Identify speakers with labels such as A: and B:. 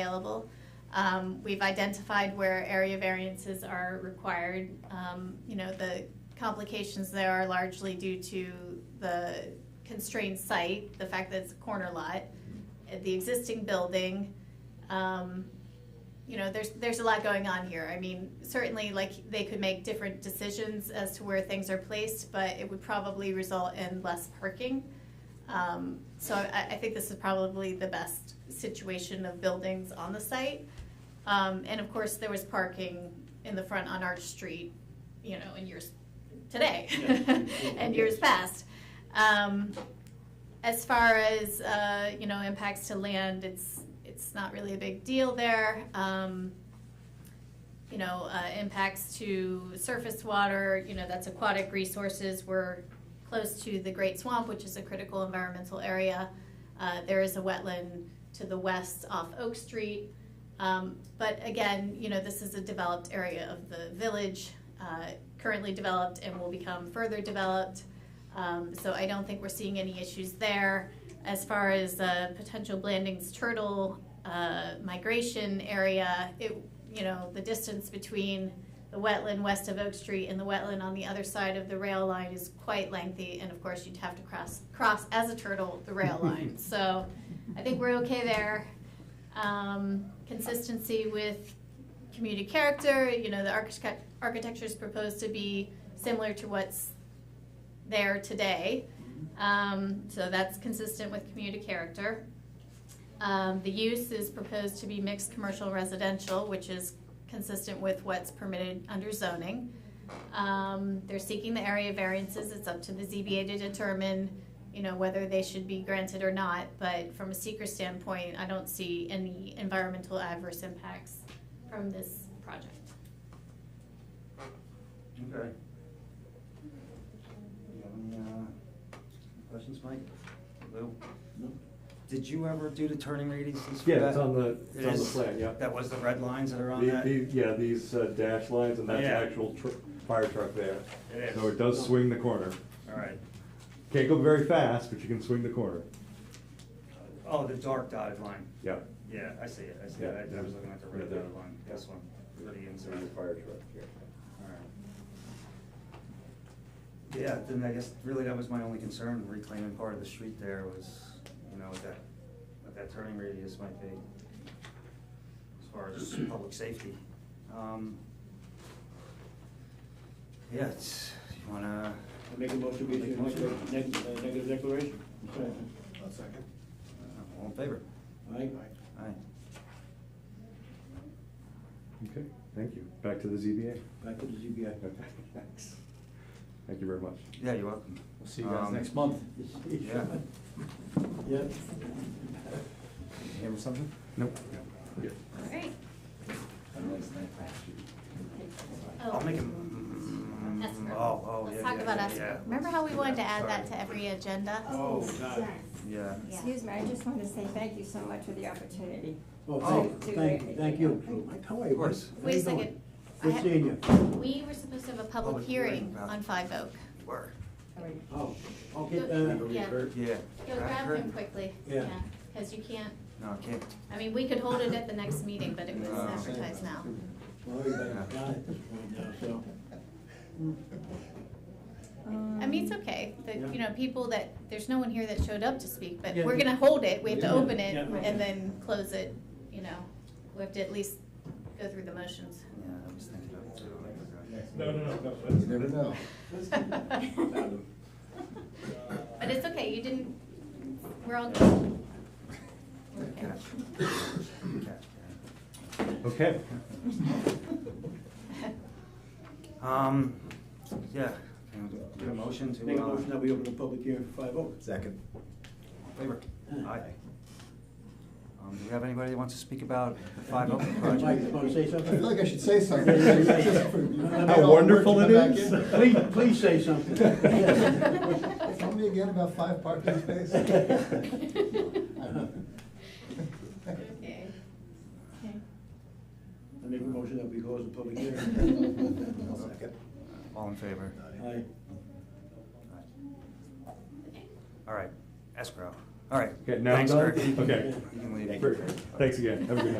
A: available. Um, we've identified where area variances are required. Um, you know, the complications there are largely due to the constrained site, the fact that it's a corner lot, uh, the existing building. Um, you know, there's, there's a lot going on here. I mean, certainly, like, they could make different decisions as to where things are placed, but it would probably result in less parking. Um, so I, I think this is probably the best situation of buildings on the site. Um, and of course, there was parking in the front on Arch Street, you know, in years, today,
B: Yeah.
A: and years past. Um, as far as, uh, you know, impacts to land, it's, it's not really a big deal there. Um, you know, uh, impacts to surface water, you know, that's aquatic resources. We're close to the Great Swamp, which is a critical environmental area. Uh, there is a wetland to the west off Oak Street. Um, but again, you know, this is a developed area of the village, uh, currently developed and will become further developed. Um, so I don't think we're seeing any issues there. As far as uh, potential Blandings turtle uh, migration area, it you know the distance between the wetland west of Oak Street and the wetland on the other side of the rail line is quite lengthy, and of course you'd have to cross cross as a turtle the rail line. So I think we're okay there. Um, consistency with community character, you know, the architect, architecture is proposed to be similar to what's there today. Um, so that's consistent with community character. Um, the use is proposed to be mixed commercial residential, which is consistent with what's permitted under zoning. Um, they're seeking the area variances. It's up to the ZBA to determine, you know, whether they should be granted or not. But from a seeker standpoint, I don't see any environmental adverse impacts from this project.
B: Okay. Do you have any, uh, questions, Mike? Lou?
C: No.
B: Did you ever do the turning radiuses for that?
C: Yeah, it's on the, it's on the
B: Is-
C: plan, yeah.
B: That was the red lines that are on
C: The-
B: that?
C: the- Yeah, these uh, dash lines, and that's the
B: Yeah.
C: actual tr- fire truck there.
B: It
C: So
B: is.
C: it does swing the corner.
B: All right.
C: Can't go very fast, but you can swing the corner.
B: Oh, the dark dotted line.
C: Yeah.
B: Yeah, I see it, I see
C: Yeah.
B: it. I- I was looking at the
C: Yeah,
B: red
C: there.
B: dotted line, this one, for the inside.
C: fire truck here.
B: All right. Yeah, then I guess really that was my only concern, reclaiming part of the street there was, you know, what that, what that turning radius might be as far as public safety. Um, Yeah, it's, you wanna,
D: I make a motion to issue a neg- neg- uh, negative declaration.
E: I'll second.
B: uh, all in favor?
D: Aye?
B: Aye.
C: Okay, thank you. Back to the ZBA.
D: Back to the ZBI.
C: Okay, thanks. Thank you very much.
B: Yeah, you're welcome.
E: We'll see you guys
B: Um,
E: next month.
B: Yeah.
D: Yeah.
B: You have something?
C: Nope. Good.
A: All right.
B: I'll make a. mm,
A: Escrow.
B: Oh, oh, yeah,
A: Oh. Let's talk
B: yeah,
A: about
B: yeah,
A: escrow.
B: yeah.
A: Remember how we wanted to add that
B: Sorry.
A: to every agenda?
D: Oh, God.
B: Yeah.
F: Excuse me, I just want to say thank you so much for the opportunity.
D: Oh,
B: Oh.
D: thank, thank, thank you. Mike, how are you?
B: Of course.
D: How
A: Wait
D: you
A: a second.
D: doing?
A: I
D: Good
A: have-
D: seeing you.
A: We were supposed to have a public
B: Public hearing
A: hearing
B: about-
A: on Five Oak.
B: Word.
D: Oh, I'll
A: Good.
D: get that.
A: Yeah.
B: uh, Yeah.
A: Go grab him quickly,
D: Yeah.
A: yeah, because you can't,
B: No, I can't.
A: I mean, we could hold it at the next meeting, but it was
B: No.
A: advertised now.
D: Well, everybody's got it at this point now, so.
A: I mean, it's okay, that, you know, people that, there's no one here that showed up to speak, but
D: Yeah.
A: we're gonna hold it, we have to
D: Yeah.
A: open it
D: Yeah.
A: and then close it, you know. We have to at least go through the motions.
B: Yeah, I was thinking of it too. I forgot.
G: No, no, no,
E: You
G: no.
E: never know.
A: But it's okay, you didn't, we're all good.
B: Good catch. Good catch,
C: Okay.
B: Karen. Um, yeah, can we get a motion to.
D: Make a
B: uh,
D: motion that we open the public hearing for five oh.
E: Second.
B: Favor. Aye. Um, do we have anybody that wants to speak about the five open
D: Mike, you
B: project?
D: wanna say
E: I feel like I
D: something?
E: should say something.
D: How
C: wonderful it is.
D: Please, please say something.
E: Tell me again about five parking spaces.
A: Okay.
D: I make a motion that we close the public hearing.
E: I'll second.
B: All in favor?
D: Aye.
B: Aye. All right, escrow. All right.
C: Okay, now I'm
B: Thanks,
C: done?
B: Kirk.
C: Okay.
B: You can leave.
C: Great. Thanks again. Have a good night.